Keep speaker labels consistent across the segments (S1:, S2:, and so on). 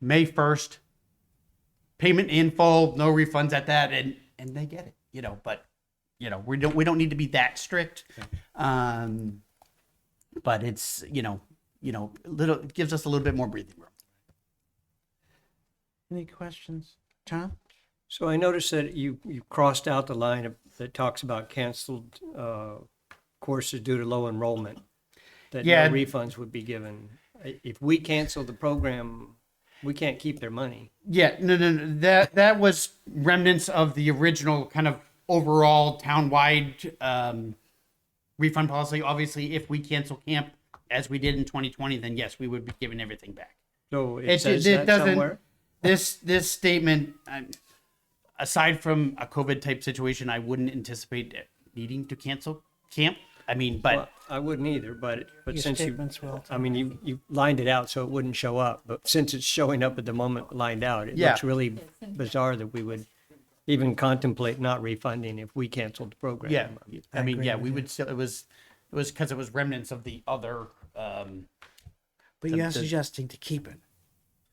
S1: May first, payment in full, no refunds at that, and and they get it, you know. But you know, we don't we don't need to be that strict. Um, but it's you know, you know, little it gives us a little bit more breathing room. Any questions, Tom?
S2: So I noticed that you, you crossed out the line of- that talks about canceled uh, courses due to low enrollment, that
S1: Yeah.
S2: no refunds would be given. I- If we cancel the program, we can't keep their money.
S1: Yeah, no, no, no. That that was remnants of the original kind of overall town-wide um, refund policy. Obviously, if we cancel camp as we did in 2020, then yes, we would be giving everything back.
S2: So
S1: It-
S2: it says
S1: it
S2: that
S1: doesn't-
S2: somewhere.
S1: This this statement, um, aside from a COVID type situation, I wouldn't anticipate needing to cancel camp. I mean, but
S2: Well, I wouldn't either, but, but
S3: Your
S2: since you,
S3: statements will.
S2: I mean, you, you lined it out so it wouldn't show up, but since it's showing up at the moment lined out, it
S1: Yeah.
S2: looks really bizarre that we would even contemplate not refunding if we canceled the program.
S1: yeah, I,
S3: I
S1: mean,
S3: agree
S1: yeah,
S3: with
S1: we would still. It was it was because it was remnants of the other. Um,
S3: But
S1: the-
S3: you're
S1: the-
S3: suggesting to keep it.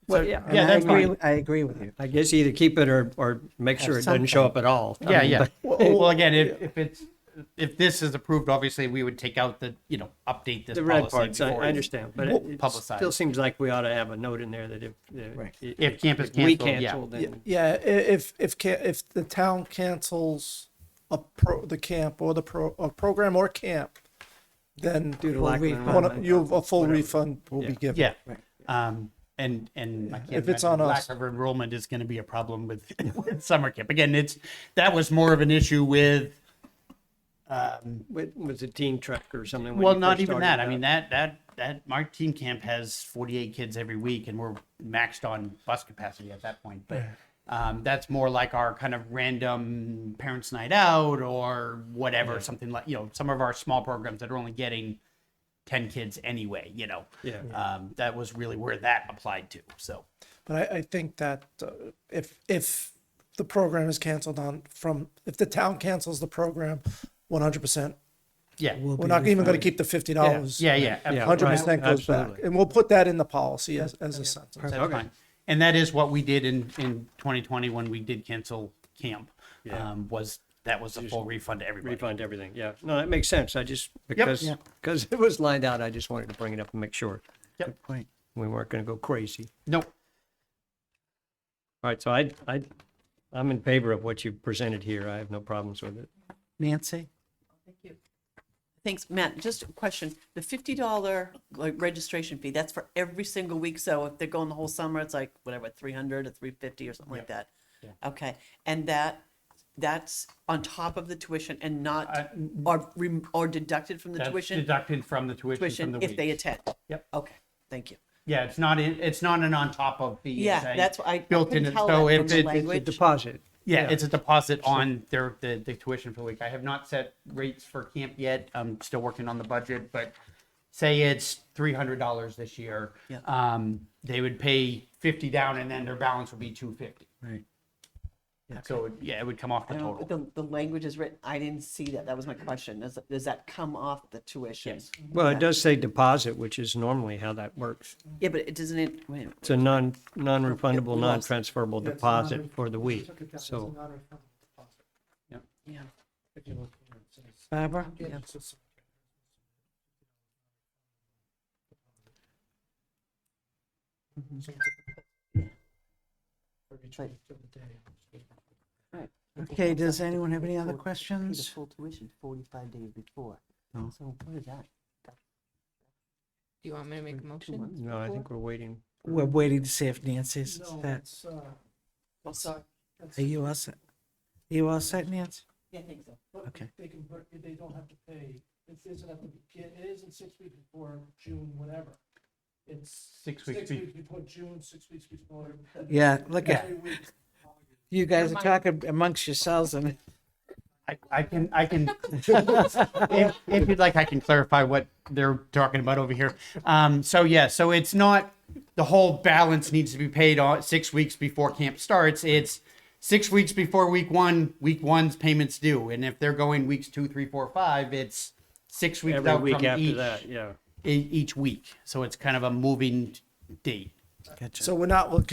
S2: Well, yeah,
S3: And
S1: Yeah,
S3: I
S1: that's
S3: agree
S1: fine.
S3: with- I agree with you.
S2: I guess either keep it or, or make sure it doesn't show up at all. I
S1: Yeah,
S2: mean,
S1: yeah.
S2: but-
S1: Well, well, again, if, if it's, if this is approved, obviously, we would take out the, you know, update this
S2: The red
S1: policy.
S2: parts, I,
S1: before
S2: I
S1: it's
S2: understand, but it- it still
S1: Publicized.
S2: seems like we ought to have a note in there that if, uh,
S3: Right.
S2: i-
S1: If camp is
S2: if we
S1: canceled, yeah.
S2: cancel, then
S4: Yeah, i- if, if, ca- if the town cancels a pro, the camp or the pro, a program or camp, then
S2: due to lack of
S3: refund.
S4: one
S2: enrollment,
S4: of- you, a full
S2: whatever.
S4: refund will be given.
S1: Yeah. Um, and, and I can't
S4: If it's
S1: imagine
S4: on
S1: lack
S4: us.
S1: of enrollment is going to be a problem with, with summer camp. Again, it's, that was more of an issue with, um,
S2: With, with the teen truck or something. when
S1: well,
S2: you
S1: not
S2: first
S1: even
S2: started
S1: that. I
S2: out.
S1: mean, that, that, that, our team camp has 48 kids every week and we're maxed on bus capacity at that point. But, um, that's more like our kind of random parents' night out or whatever, something like, you know, some of our small programs that are only getting 10 kids anyway, you know.
S2: Yeah.
S1: Um, that was really where that applied to. So,
S4: But I, I think that uh, if, if the program is canceled on from, if the town cancels the program, one hundred percent,
S1: yeah.
S3: Will
S4: we're
S3: be
S4: not even gonna
S3: refunded.
S4: keep the fifty dollars.
S1: Yeah, yeah.
S2: Yeah.
S1: absolutely.
S4: Hundred percent
S2: Right,
S4: goes back,
S2: absolutely.
S4: and we'll put that in the policy as, as a sentence.
S1: That's fine. And that is what we did in, in 2020 when we did cancel camp. Um, was that was a full refund to everybody.
S2: Refund everything, yeah. No, that makes sense. I just, because,
S1: Yeah.
S2: because it was lined out, I just wanted to bring it up and make sure
S1: Yep.
S3: Point.
S2: we weren't going to go crazy.
S1: Nope.
S2: All right, so I, I, I'm in favor of what you presented here. I have no problems with it.
S3: Nancy?
S5: Thanks, Matt. Just a question. The fifty dollar like registration fee, that's for every single week. So if they're going the whole summer, it's like whatever, three hundred or three fifty or something like that. Okay, and that, that's on top of the tuition and
S1: Uh,
S5: not, or, rem- or deducted from the
S1: That's
S5: tuition?
S1: deducted from the tuition, from
S5: Tuition
S1: the
S5: if
S1: week.
S5: they attend.
S1: Yep.
S5: Okay, thank you.
S1: Yeah, it's not in, it's not an on top of fee.
S5: Yeah,
S1: it's a
S5: that's why I- I
S1: built in.
S5: couldn't
S1: it.
S5: tell
S1: So
S5: that
S1: if
S5: from the
S1: it-
S2: It's a
S5: Language.
S2: deposit.
S1: Yeah, it's a deposit on their, the, the tuition for the week. I have not set rates for camp yet. I'm still working on the budget, but say it's three hundred dollars this year.
S5: Yeah.
S1: Um, they would pay fifty down and then their balance would be two fifty.
S3: Right.
S1: So, it- yeah, it would come off the
S5: I don't,
S1: total.
S5: the, the language is written, I didn't see that. That was my question. Does, does that come off the tuition?
S1: Yes.
S2: Well, it does say deposit, which is normally how that works.
S5: Yeah, but it doesn't, it, wait a minute.
S2: It's a non, non-refundable,
S5: lost.
S2: non-transferable deposit for the week. So
S5: yeah.
S3: Barbara? Mm-hmm. Okay, does anyone have any other
S5: the
S3: questions?
S5: full tuition forty-five days before.
S3: No.
S5: So what is that?
S6: Do you want me to make a motion?
S2: No, I think we're waiting.
S3: We're waiting to see if Nancy's, that,
S4: uh,
S5: Well, sorry.
S3: are you all set? You all set, Nancy?
S5: Yeah, I think so.
S3: Okay.
S4: They can, br- they don't have to pay, it isn't at the, begin- it isn't six weeks before June, whatever. It's
S1: Six weeks be-
S4: before June, six weeks before.
S3: Yeah, look at,
S4: every week.
S3: you guys are talking amongst yourselves and
S1: I, I can, I can, if, if you'd like, I can clarify what they're talking about over here. Um, so yeah, so it's not, the whole balance needs to be paid on six weeks before camp starts. It's six weeks before week one, week one's payments due. And if they're going weeks two, three, four, five, it's six weeks
S2: Every
S1: out
S2: week
S1: from
S2: after
S1: each,
S2: that, yeah.
S1: e- each week. So it's kind of a moving date.
S3: Gotcha.
S4: So we're not looking